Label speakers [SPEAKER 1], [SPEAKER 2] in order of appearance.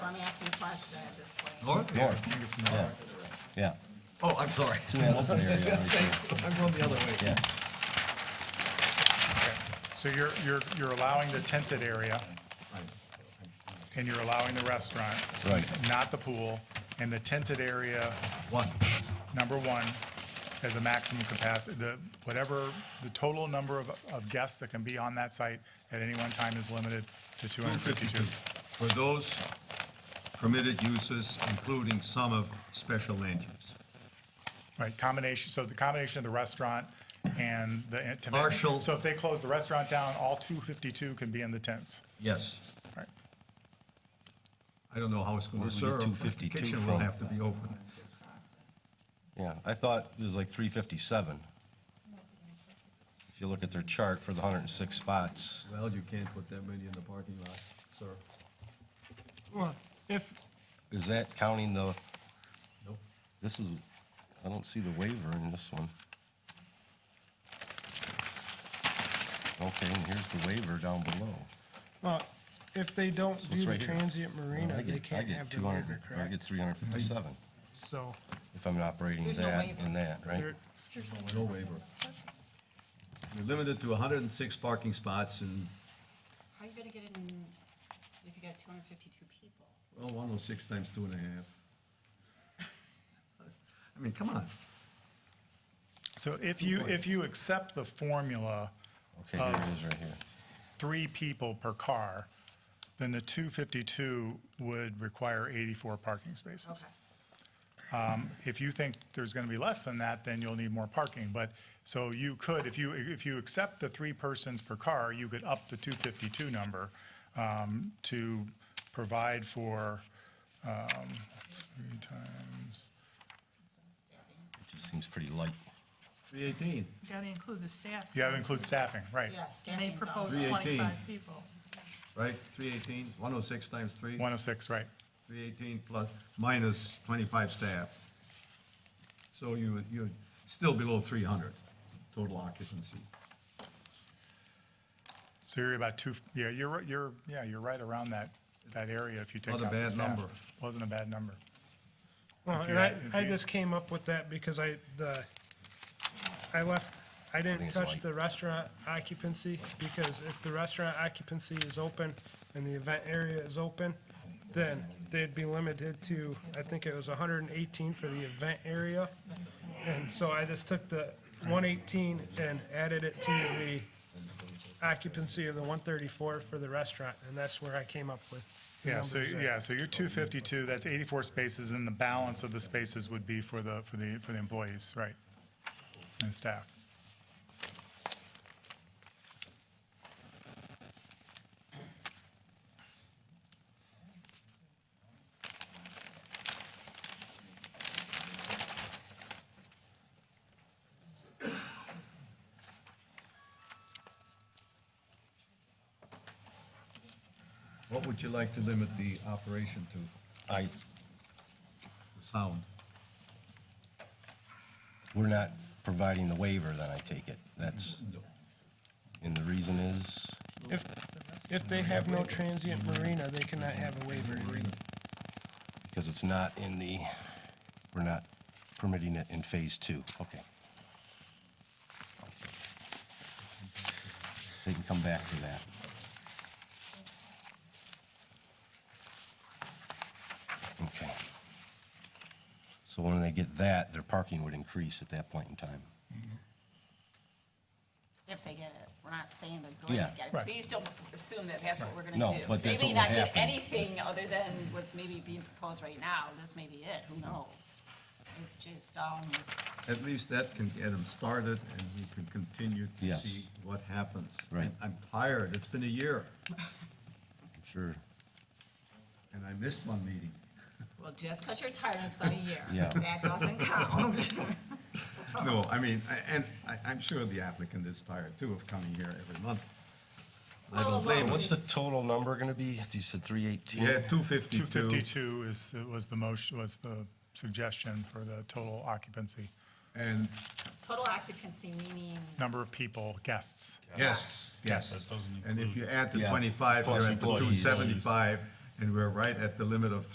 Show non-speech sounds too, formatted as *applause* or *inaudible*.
[SPEAKER 1] asking a question at this point.
[SPEAKER 2] North?
[SPEAKER 3] North.
[SPEAKER 2] I think it's
[SPEAKER 3] Yeah.
[SPEAKER 2] north.
[SPEAKER 3] Yeah,
[SPEAKER 2] Oh, I'm sorry.
[SPEAKER 3] it's in that open area right there,
[SPEAKER 2] I'm going the other way.
[SPEAKER 3] yeah.
[SPEAKER 4] Okay. So you're, you're, you're allowing the tented area, and you're allowing the restaurant.
[SPEAKER 3] Right.
[SPEAKER 4] Not the pool, and the tented area,
[SPEAKER 2] One,
[SPEAKER 4] number one, has a maximum capacity, the, whatever, the total number of, of guests that can be on that site at any one time is limited to two hundred fifty-two.
[SPEAKER 2] 252. For those permitted uses, including some of special land use.
[SPEAKER 4] Right, combination, so the combination of the restaurant and the. and to-
[SPEAKER 2] Partial.
[SPEAKER 4] So if they close the restaurant down, all two fifty-two can be in the tents,
[SPEAKER 2] Yes.
[SPEAKER 4] right?
[SPEAKER 2] I don't know how it's going
[SPEAKER 3] Where
[SPEAKER 2] to
[SPEAKER 3] do we get
[SPEAKER 2] serve.
[SPEAKER 3] 252
[SPEAKER 2] Kitchen will
[SPEAKER 3] from?
[SPEAKER 2] have to be open.
[SPEAKER 3] Yeah, I thought it was like three fifty-seven. If you look at their chart for the hundred and six spots,
[SPEAKER 2] Well, you can't put that many in the parking lot, sir.
[SPEAKER 4] Well, if,
[SPEAKER 3] is that counting the,
[SPEAKER 2] Nope.
[SPEAKER 3] this is, I don't see the waiver in this one. Okay, and here's the waiver down below.
[SPEAKER 5] Well, if they don't
[SPEAKER 3] So it's
[SPEAKER 5] do the
[SPEAKER 3] right here.
[SPEAKER 5] transient
[SPEAKER 3] I
[SPEAKER 5] marina, they
[SPEAKER 3] get- I
[SPEAKER 5] can't
[SPEAKER 3] get
[SPEAKER 5] have the
[SPEAKER 3] 200 I
[SPEAKER 5] waiver,
[SPEAKER 3] get
[SPEAKER 5] correct?
[SPEAKER 3] three hundred fifty-seven
[SPEAKER 5] So,
[SPEAKER 3] if I'm operating
[SPEAKER 1] There's no
[SPEAKER 3] that
[SPEAKER 1] waiver.
[SPEAKER 3] and that, right?
[SPEAKER 5] they're-
[SPEAKER 2] No waiver. You're limited to 106 parking spots and,
[SPEAKER 1] How are you gonna get it in, if you got two hundred fifty-two people?
[SPEAKER 2] well, 106 times two and a half. I mean, come on.
[SPEAKER 4] So if you, if you accept the formula,
[SPEAKER 3] Okay, here
[SPEAKER 5] Um,
[SPEAKER 3] it is right here.
[SPEAKER 4] three people per car, then the 252 would require 84 parking spaces.
[SPEAKER 1] Okay.
[SPEAKER 4] If you think there's going to be less than that, then you'll need more parking. But, so you could, if you, if you accept the three persons per car, you could up the 252 number um, to provide for um, three times,
[SPEAKER 3] It just seems pretty light.
[SPEAKER 2] 318.
[SPEAKER 6] Got to include the staff.
[SPEAKER 4] yeah, that includes staffing, right?
[SPEAKER 1] Yeah,
[SPEAKER 6] And they
[SPEAKER 1] staffing's
[SPEAKER 6] proposed
[SPEAKER 1] also,
[SPEAKER 2] 318.
[SPEAKER 6] twenty-five people.
[SPEAKER 2] right? 318, 106 times 3,
[SPEAKER 4] 106, right.
[SPEAKER 2] 318 plus, minus 25 staff. So you, you're still below 300 total occupancy.
[SPEAKER 4] So you're about two, yeah, you're, you're, yeah, you're right around that, that area if you take out
[SPEAKER 2] Not a
[SPEAKER 4] the
[SPEAKER 2] bad
[SPEAKER 4] staff.
[SPEAKER 2] number.
[SPEAKER 4] Wasn't a bad number.
[SPEAKER 5] well,
[SPEAKER 4] If you
[SPEAKER 5] and I,
[SPEAKER 4] had- if
[SPEAKER 5] I
[SPEAKER 4] you-
[SPEAKER 5] just came up with that because I, the, I left, I
[SPEAKER 3] think
[SPEAKER 5] didn't
[SPEAKER 3] it's
[SPEAKER 5] touch
[SPEAKER 3] light.
[SPEAKER 5] the restaurant occupancy because if the restaurant occupancy is open and the event area is open, then they'd be limited to, I think it was hundred and eighteen for the event area. And so I just took the one eighteen and added it to the occupancy of the one thirty-four for the restaurant, and that's where I came up with. the
[SPEAKER 4] Yeah, so,
[SPEAKER 5] numbers there.
[SPEAKER 4] yeah, so you're two fifty-two, that's eighty-four spaces, and the balance of the spaces would be for the, for the, for the employees, right? And staff.
[SPEAKER 2] What would you like to limit the operation to,
[SPEAKER 3] I,
[SPEAKER 2] the sound?
[SPEAKER 3] we're not providing the waiver, then I take it. That's,
[SPEAKER 2] No.
[SPEAKER 3] and the reason is,
[SPEAKER 5] If, if they have no transient marina, they cannot have a waiver.
[SPEAKER 3] because it's not in the, we're not permitting it in phase two. Okay. They can come back to that. Okay. So when they get that, their parking would increase at that point in time.
[SPEAKER 1] if they get it, we're not saying they're going to
[SPEAKER 3] Yeah.
[SPEAKER 1] get it.
[SPEAKER 4] Right.
[SPEAKER 1] Please don't assume that that's what we're gonna do.
[SPEAKER 3] No, but that's
[SPEAKER 1] They may
[SPEAKER 3] what
[SPEAKER 1] not
[SPEAKER 3] will
[SPEAKER 1] get
[SPEAKER 3] happen.
[SPEAKER 1] anything other than what's maybe being proposed right now, this may be it, who knows? It's just, um,
[SPEAKER 2] At least that can get them started and we can continue to
[SPEAKER 3] Yes.
[SPEAKER 2] see what happens.
[SPEAKER 3] Right.
[SPEAKER 2] I'm tired, it's been a year
[SPEAKER 3] I'm sure.
[SPEAKER 2] and I missed one meeting.
[SPEAKER 1] well, just because you're tired, it's about a year.
[SPEAKER 3] Yeah.
[SPEAKER 1] That doesn't *laughs*
[SPEAKER 3] *laughs*
[SPEAKER 1] count.
[SPEAKER 2] No, I mean, I- and I, I'm sure the applicant is tired too of coming here every month. I
[SPEAKER 1] Well,
[SPEAKER 2] don't blame him.
[SPEAKER 3] What's the total number gonna be? You said three eighteen?
[SPEAKER 2] Yeah, two
[SPEAKER 4] Two
[SPEAKER 2] fifty-two.
[SPEAKER 4] fifty-two is, was the motion, was the suggestion for the total occupancy,
[SPEAKER 2] And
[SPEAKER 1] Total occupancy, meaning,
[SPEAKER 4] number of people, guests.
[SPEAKER 2] yes, yes.
[SPEAKER 7] That doesn't
[SPEAKER 2] And if you add the
[SPEAKER 3] Yeah,
[SPEAKER 2] twenty-five,
[SPEAKER 3] plus
[SPEAKER 2] you're at the two
[SPEAKER 3] employees.
[SPEAKER 2] seventy-five and we're right at the limit of